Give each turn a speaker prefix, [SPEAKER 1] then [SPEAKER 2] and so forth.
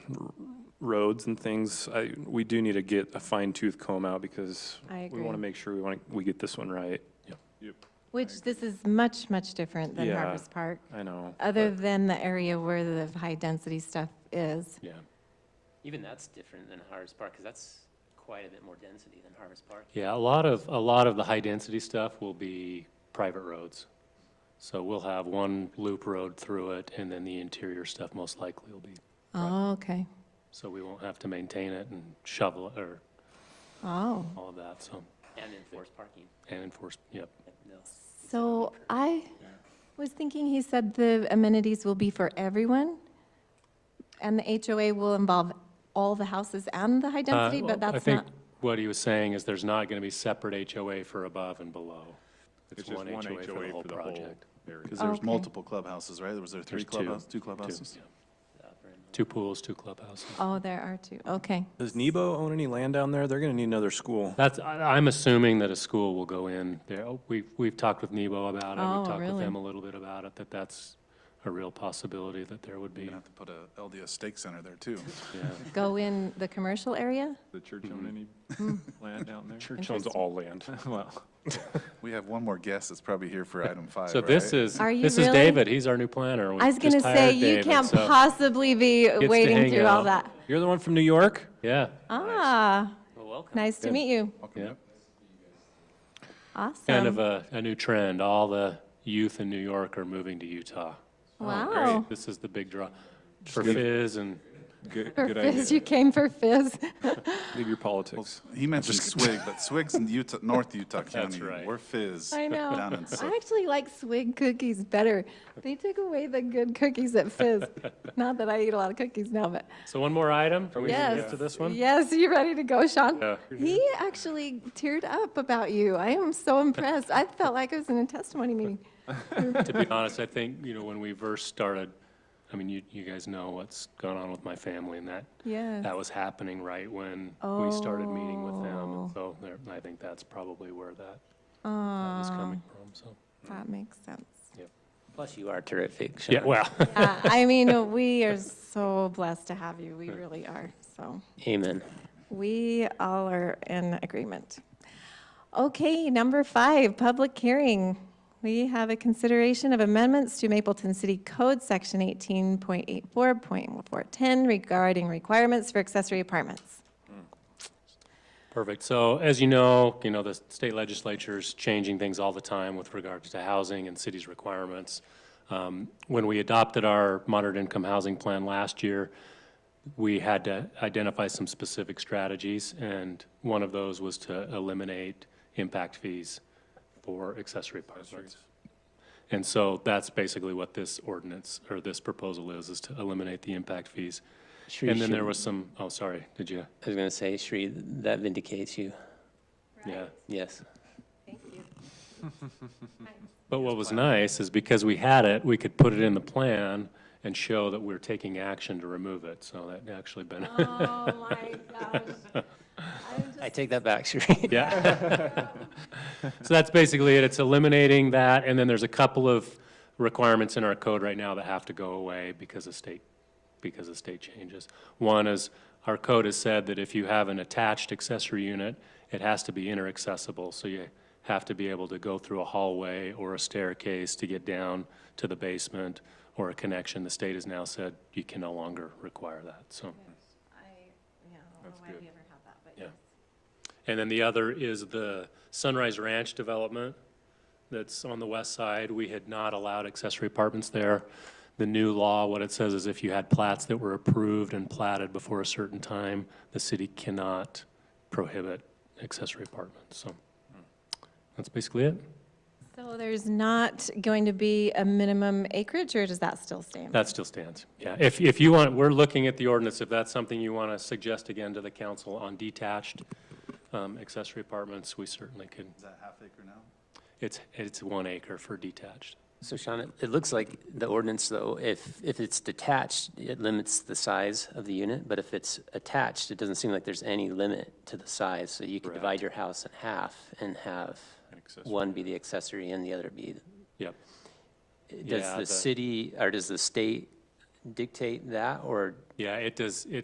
[SPEAKER 1] roads and things, I, we do need to get a fine tooth comb out because
[SPEAKER 2] I
[SPEAKER 1] we want
[SPEAKER 2] agree.
[SPEAKER 1] to make sure we want to, we get this one right.
[SPEAKER 2] Which this is much, much different than
[SPEAKER 1] Yeah.
[SPEAKER 2] Harvest Park,
[SPEAKER 1] I know.
[SPEAKER 2] other
[SPEAKER 1] but-
[SPEAKER 2] than the area where the high-density stuff is.
[SPEAKER 1] Yeah,
[SPEAKER 3] Even that's different than Harvest Park, because that's quite a bit more density than Harvest Park.
[SPEAKER 4] Yeah, a lot of, a lot of the high-density stuff will be private roads. So we'll have one loop road through it, and then the interior stuff most likely will be,
[SPEAKER 2] Oh, okay.
[SPEAKER 4] so we won't have to maintain it and shovel it or
[SPEAKER 2] Oh.
[SPEAKER 4] all of that, so,
[SPEAKER 3] And enforced parking,
[SPEAKER 4] and enforce, yep.
[SPEAKER 3] no.
[SPEAKER 2] So I was thinking he said the amenities will be for everyone, and the HOA will involve all the houses and the high
[SPEAKER 4] Uh,
[SPEAKER 2] density, but
[SPEAKER 4] I
[SPEAKER 2] that's
[SPEAKER 4] think
[SPEAKER 2] not,
[SPEAKER 4] what he was saying is there's not gonna be separate HOA for above and below.
[SPEAKER 5] It's just one HOA for the whole
[SPEAKER 4] project.
[SPEAKER 5] area.
[SPEAKER 1] because
[SPEAKER 2] Oh.
[SPEAKER 1] there's,
[SPEAKER 5] There's
[SPEAKER 2] Okay.
[SPEAKER 5] multiple clubhouses, right? Was there three
[SPEAKER 4] There's two.
[SPEAKER 5] clubhouses, two
[SPEAKER 4] Two,
[SPEAKER 5] clubhouses?
[SPEAKER 4] yeah.
[SPEAKER 3] the upper and lower.
[SPEAKER 4] Two pools, two clubhouses.
[SPEAKER 2] oh, there are two, okay.
[SPEAKER 1] does Nebo own any land down there? They're going to need another school.
[SPEAKER 4] That's, I- I'm assuming that a school will go in there. Oh, We've, we've talked with Nebo about it.
[SPEAKER 2] Oh,
[SPEAKER 4] We've talked with
[SPEAKER 2] really?
[SPEAKER 4] them a little bit about it, that that's a real possibility that there would
[SPEAKER 5] You're
[SPEAKER 4] be.
[SPEAKER 5] gonna have to put a LDS stake center there too.
[SPEAKER 4] yeah.
[SPEAKER 2] Go in the commercial area?
[SPEAKER 6] The church own any land down there?
[SPEAKER 1] Church owns all land.
[SPEAKER 6] Well,
[SPEAKER 5] We have one more guest that's probably here for item five,
[SPEAKER 4] So this
[SPEAKER 5] right?
[SPEAKER 4] is,
[SPEAKER 2] Are you
[SPEAKER 4] this is
[SPEAKER 2] really-
[SPEAKER 4] David. He's our new planner. We
[SPEAKER 2] I was
[SPEAKER 4] just
[SPEAKER 2] gonna say,
[SPEAKER 4] hired
[SPEAKER 2] you
[SPEAKER 4] David,
[SPEAKER 2] can't
[SPEAKER 4] so-
[SPEAKER 2] possibly be
[SPEAKER 4] to
[SPEAKER 2] waiting
[SPEAKER 4] hang
[SPEAKER 2] through all
[SPEAKER 4] out.
[SPEAKER 2] that.
[SPEAKER 1] You're the one from New York?
[SPEAKER 4] Yeah.
[SPEAKER 2] Ah,
[SPEAKER 3] Well, welcome.
[SPEAKER 2] nice to meet you.
[SPEAKER 5] Welcome,
[SPEAKER 4] Yeah.
[SPEAKER 5] yep.
[SPEAKER 2] Awesome.
[SPEAKER 4] Kind of
[SPEAKER 2] Um,
[SPEAKER 4] a, a new trend. All the youth in New York are moving to Utah.
[SPEAKER 2] Wow.
[SPEAKER 4] This is the big draw for Fizz and,
[SPEAKER 6] good,
[SPEAKER 2] For
[SPEAKER 6] good idea.
[SPEAKER 2] Fizz, you came for Fizz.
[SPEAKER 1] Leave your politics.
[SPEAKER 5] He mentioned Swig, but Swig's in Utah, North Utah County.
[SPEAKER 4] right.
[SPEAKER 5] We're Fizz.
[SPEAKER 2] I know.
[SPEAKER 5] Down in Sook.
[SPEAKER 2] I actually like swig cookies better. They took away the good cookies at Fizz. Not that I eat a lot of cookies now, but
[SPEAKER 4] so one more item? Are we gonna
[SPEAKER 2] yes.
[SPEAKER 4] get to this one?
[SPEAKER 2] Yes, you ready to go, Sean?
[SPEAKER 4] Yeah.
[SPEAKER 2] He actually teared up about you. I am so impressed. I felt like I was in a testimony meeting.
[SPEAKER 4] to be honest, I think, you know, when we first started, I mean, you, you guys know what's gone on with my family and that,
[SPEAKER 2] Yes.
[SPEAKER 4] that was happening right when we started meeting with them.
[SPEAKER 2] Oh.
[SPEAKER 4] And so there, I think that's probably where that, that was
[SPEAKER 2] Aw,
[SPEAKER 4] coming from, so.
[SPEAKER 2] that makes sense.
[SPEAKER 3] Plus, you are terrific.
[SPEAKER 4] Yeah,
[SPEAKER 3] Sean.
[SPEAKER 4] well,
[SPEAKER 2] Uh, I mean, we are so blessed to have you. We really are, so.
[SPEAKER 3] Amen.
[SPEAKER 2] We all are in agreement. Okay, number five, public hearing. We have a consideration of amendments to Mapleton City Code, Section 18.84.410 regarding requirements for accessory apartments.
[SPEAKER 4] perfect. So as you know, you know, the state legislature's changing things all the time with regards to housing and cities' requirements. Um, When we adopted our moderate income housing plan last year, we had to identify some specific strategies, and one of those was to eliminate impact fees for accessory apartments. And so that's basically what this ordinance, or this proposal is, is to eliminate the impact fees.
[SPEAKER 3] Sure you
[SPEAKER 4] And then there
[SPEAKER 3] should-
[SPEAKER 4] was some, oh, sorry, did you?
[SPEAKER 3] I was going to say, Shri, that vindicates you.
[SPEAKER 4] Yeah.
[SPEAKER 3] Yes.
[SPEAKER 4] But what was nice is because we had it, we could put it in the plan and show that we're taking action to remove it, so that actually been,
[SPEAKER 2] Oh, my gosh.
[SPEAKER 3] I take that back, Shri.
[SPEAKER 4] yeah. So that's basically it, it's eliminating that, and then there's a couple of requirements in our code right now that have to go away because of state, because of state changes. One is, our code has said that if you have an attached accessory unit, it has to be inter-accessible, so you have to be able to go through a hallway or a staircase to get down to the basement or a connection. The state has now said you can no longer require that, so. And then the other is the Sunrise Ranch development that's on the west side. We had not allowed accessory apartments there. The new law, what it says is if you had plats that were approved and platted before a certain time, the city cannot prohibit accessory apartments, so that's basically it.
[SPEAKER 2] So there's not going to be a minimum acreage, or does that still stand?
[SPEAKER 4] That still stands, yeah. If, if you want, we're looking at the ordinance, if that's something you want to suggest again to the council on detached um, accessory apartments, we certainly could.
[SPEAKER 5] Is that half acre now?
[SPEAKER 4] It's, it's one acre for detached.
[SPEAKER 3] So Sean, it- it looks like the ordinance, though, if, if it's detached, it limits the size of the unit, but if it's attached, it doesn't seem like there's any limit to the size, so you could divide your house in half and have one be the accessory and the other be.
[SPEAKER 4] Yep.
[SPEAKER 3] Does
[SPEAKER 4] Yeah,
[SPEAKER 3] the
[SPEAKER 4] the-
[SPEAKER 3] city, or does the state dictate that, or
[SPEAKER 4] Yeah, it does, it